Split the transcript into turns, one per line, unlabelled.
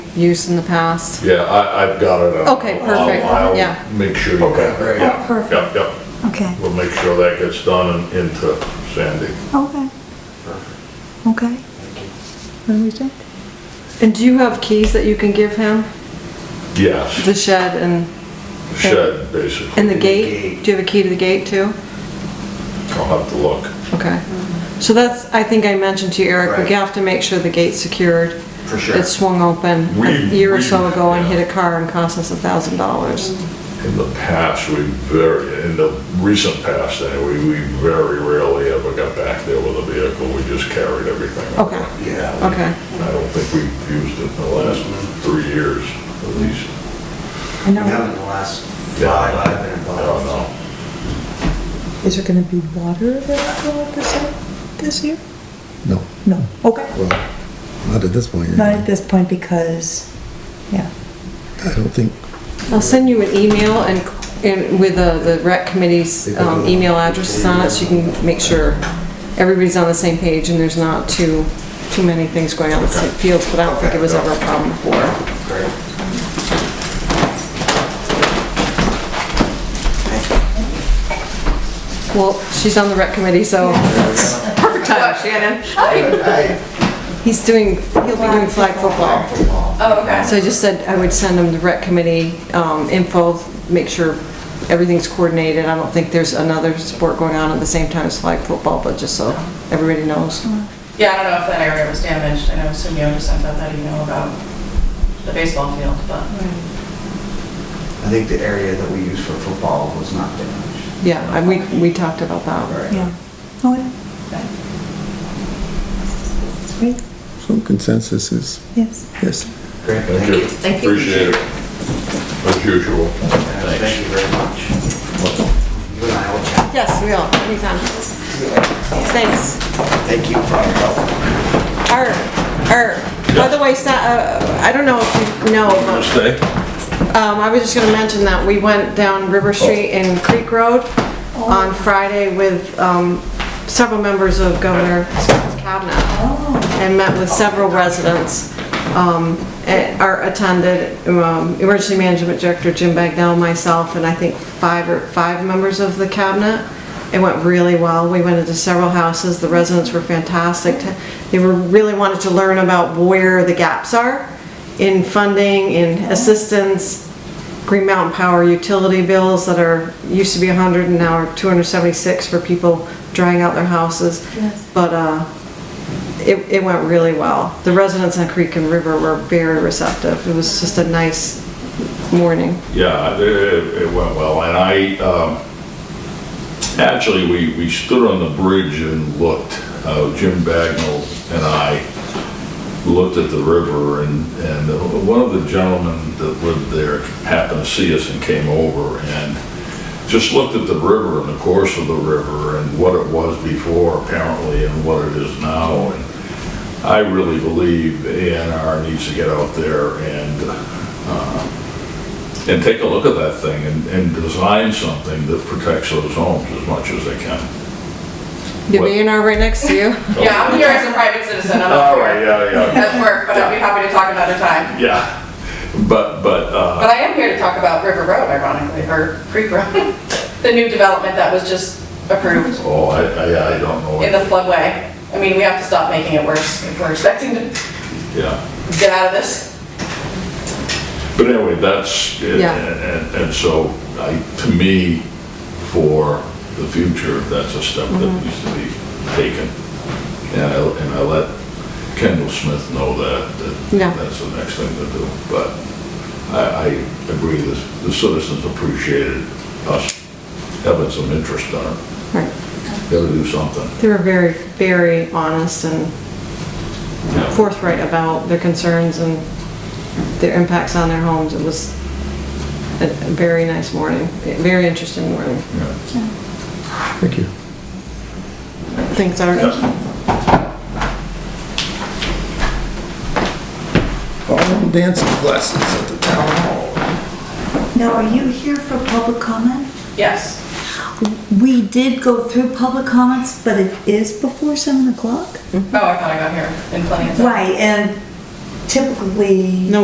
use in the past.
Yeah, I, I've got it. I'll-
Okay, perfect,
I'll- I'll
yeah.
Make sure you
Okay,
have it.
great.
Yeah,
Oh, perfect.
Yep, yep.
Okay,
We'll make sure that gets done and into Sandy.
okay. Okay. What do we think?
And do you have keys that you can give him?
Yes,
The shed and,
shed, basically.
and the gate?
gate.
Do you have a key to the gate too?
I'll have to look.
Okay. So that's, I think I mentioned to you, Eric,
Mm-hmm. Right.
we have to make sure the gate's secured.
For sure.
It swung open a
We-
year or
we-
so ago and
yeah.
hit a car and cost us a thousand dollars.
Mm-hmm.
In the past, we very, in the recent past anyway, we very rarely ever got back there with a vehicle. We just carried everything. over.
Okay,
Yeah.
okay.
I don't think we've used it in the last three years, at least.
I
We
know.
haven't in the last
Yeah.
five, I've
I
been
don't
involved.
know.
Is there gonna be water available at this, this year?
No,
No, okay.
well, not at this point. yeah.
Not at this point because, yeah.
I don't think,
I'll send you an email and, and with uh, the rec committee's um, email addresses on it, so you can make sure everybody's on the same page and there's not too, too many things going on in the same fields, but I don't think it was ever a problem before.
Great.
Well, she's on the rec committee, so perfect time, Shannon.
Hey,
He's doing, he'll be doing flag football.
football.
Oh, okay.
So I just said I would send him the rec committee um, info, make sure everything's coordinated. I don't think there's another sport going on at the same time as flag football, but just so everybody knows.
Yeah, I don't know if that area was damaged. I know Sunio just sent out that email about the baseball field, but
I think the area that we use for football was not damaged.
Yeah, and we, we talked about that.
Right.
Yeah. Oh, yeah. Great,
so consensus is,
yes.
yes.
Great, thank you.
Thank you. Appreciate it. As usual.
Thank you very much. You and I will chat.
Yes, we all, anytime. Thanks.
Thank you for your help.
Er, er, by the way, Sa- uh, I don't know if you know, but
Stay.
Um, I was just gonna mention that we went down River Street and Creek Road on Friday with, um, several members of Governor Scott's cabinet. And met with several residents, um, and, or attended, um, Emergency Management Director Jim Bagnell, myself, and I think five or, five members of the cabinet. It went really well. We went into several houses. The residents were fantastic. They were, really wanted to learn about where the gaps are in funding, in assistance, Green Mountain Power utility bills that are, used to be 100 and now are 276 for people drying out their houses. But uh, it it went really well. The residents on Creek and River were very receptive. It was just a nice morning.
Yeah, it- it, it went well, and I, um, actually, we, we stood on the bridge and looked. Uh, Jim Bagnell and I looked at the river, and, and one of the gentlemen that lived there happened to see us and came over, and just looked at the river and the course of the river, and what it was before apparently, and what it is now, and I really believe A and R needs to get out there and, and take a look at that thing and, and design something that protects those homes as much as they can.
You'll be in our right next to you.
yeah, I'm here as a private citizen. I'm not here
yeah,
at work, but I'd be happy to talk another time.
Yeah, but, but, uh,
But I am here to talk about River Road ironically, or Creek Road, the new development that was just approved
oh, I, I, I don't know.
in the floodway. I mean, we have to stop making it worse if we're expecting to
Yeah,
get out of this.
but anyway, that's, and,
Yeah.
and, and so I, to me, for the future, that's a step
Mm-hmm.
that needs to be taken. And I, and I let Kendall Smith know that,
Yeah.
that that's the next thing to do. But I, I agree, the, the citizens appreciated us having some interest on it.
Right.
Gotta do something.
They were very, very honest and forthright about their concerns and their impacts on their homes. It was a a very nice morning, a very interesting morning.
Yeah.
Thank you.
Thanks, Art.
All dancing classes at the town hall.
Now, are you here for public comment?
Yes.
We did go through public comments, but it is before seven o'clock? Mm-hmm.
Oh, I thought I got here in plenty of time.
Right, and typically.
No,